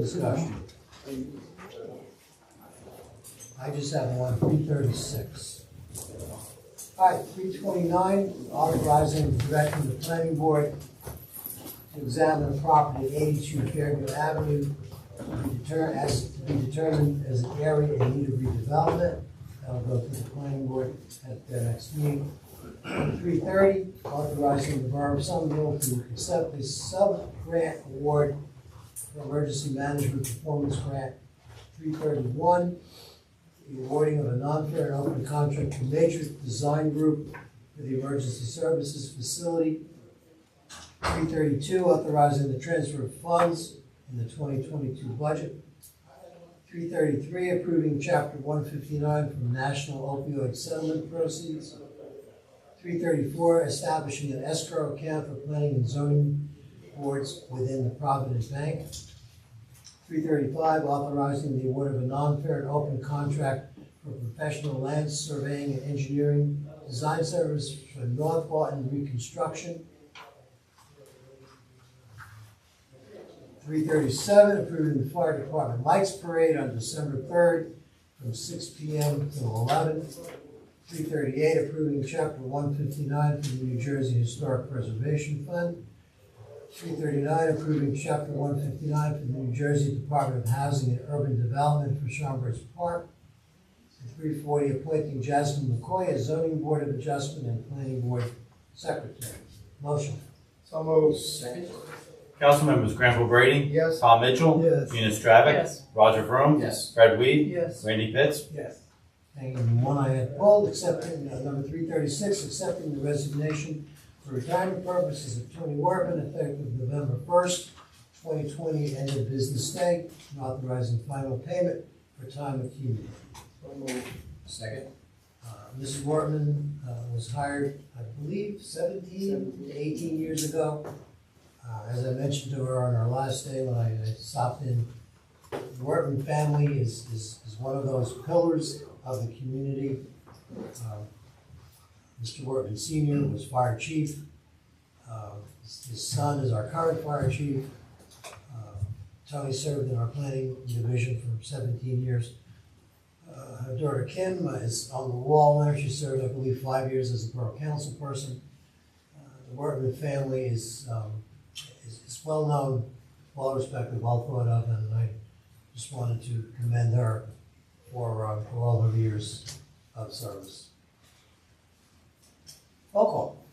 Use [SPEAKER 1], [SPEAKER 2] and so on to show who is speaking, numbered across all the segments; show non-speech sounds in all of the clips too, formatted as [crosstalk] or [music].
[SPEAKER 1] discussion. I just have one, three thirty-six. All right, three twenty-nine, authorizing directing the planning board to examine property at eighty-two Fairview Avenue to deter, as, to be determined as an area in need of redevelopment. That'll go to the planning board at their next meeting. Three thirty, authorizing the borough of Somerville to accept a sub-grant award for emergency management performance grant three thirty-one, the awarding of a non-fair and open contract to Matrix Design Group for the emergency services facility. Three thirty-two, authorizing the transfer of funds in the twenty twenty-two budget. Three thirty-three, approving chapter one fifty-nine from National Opioid Settlement Proceeds. Three thirty-four, establishing an escrow account for planning and zoning boards within the Providence Bank. Three thirty-five, authorizing the award of a non-fair and open contract for professional land surveying and engineering design service for North Barton reconstruction. Three thirty-seven, approving the fire department lights parade on December third from six P M. till eleven. Three thirty-eight, approving chapter one fifty-nine for the New Jersey Historic Preservation Fund. 339, approving Chapter 159 for the New Jersey Department of Housing and Urban Development for Schaumburg's Park. And 340, appointing Jasmine McCoy as zoning board of adjustment and planning board secretary. Motion.
[SPEAKER 2] So moved. Second.
[SPEAKER 3] Council members Granville Brady,
[SPEAKER 2] Yes.
[SPEAKER 3] Tom Mitchell,
[SPEAKER 2] Yes.
[SPEAKER 3] Gina Stravic,
[SPEAKER 4] Yes.
[SPEAKER 3] Roger Vroom,
[SPEAKER 2] Yes.
[SPEAKER 3] Fred Weed,
[SPEAKER 4] Yes.
[SPEAKER 3] Randy Pitts,
[SPEAKER 2] Yes.
[SPEAKER 1] Hanging in one I had pulled, accepting, uh, number 336, accepting the resignation for retirement purposes of Tony Werpin effective November 1st, 2020, end of business day, and authorizing final payment for time accumulated.
[SPEAKER 2] So moved. Second.
[SPEAKER 1] Uh, Mrs. Wortman uh, was hired, I believe, 17, 18 years ago. Uh, As I mentioned to her on our last day when I I stopped in, the Wortman family is, is is one of those pillars of the community. Um, Mr. Wortman Senior was fire chief. Uh, His his son is our current fire chief. Uh, Tony served in our planning division for 17 years. Uh, her daughter Kim is on the wall there. She served, I believe, five years as a borough council person. Uh, The Wortman family is, um, is, is well known, well respected, well thought of, and I just wanted to commend her for, uh, for all her years of service. Roll call.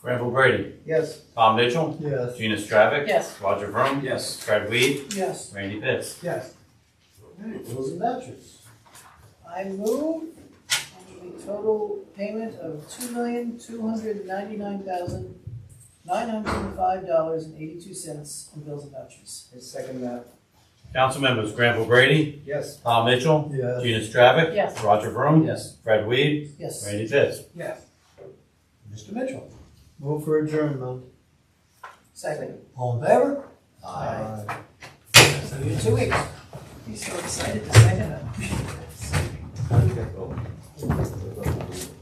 [SPEAKER 3] Granville Brady,
[SPEAKER 2] Yes.
[SPEAKER 3] Tom Mitchell,
[SPEAKER 2] Yes.
[SPEAKER 3] Gina Stravic,
[SPEAKER 4] Yes.
[SPEAKER 3] Roger Vroom,
[SPEAKER 2] Yes.
[SPEAKER 3] Fred Weed,
[SPEAKER 1] Yes.
[SPEAKER 3] Randy Pitts.
[SPEAKER 2] Yes.
[SPEAKER 1] Bills and vouchers.
[SPEAKER 4] I move a total payment of two million, two hundred ninety-nine thousand, nine hundred and five dollars and eighty-two cents in bills and vouchers.
[SPEAKER 2] I second that.
[SPEAKER 3] Council members Granville Brady,
[SPEAKER 2] Yes.
[SPEAKER 3] Tom Mitchell,
[SPEAKER 2] Yes.
[SPEAKER 3] Gina Stravic,
[SPEAKER 4] Yes.
[SPEAKER 3] Roger Vroom,
[SPEAKER 2] Yes.
[SPEAKER 3] Fred Weed,
[SPEAKER 4] Yes.
[SPEAKER 3] Randy Pitts.
[SPEAKER 2] Yes.
[SPEAKER 1] Mr. Mitchell.
[SPEAKER 2] Move for adjournment.
[SPEAKER 4] Second.
[SPEAKER 1] All in favor?
[SPEAKER 2] Aye.
[SPEAKER 1] See you in two weeks.
[SPEAKER 4] [laughs] He's so excited to sign it up.
[SPEAKER 2] Aye.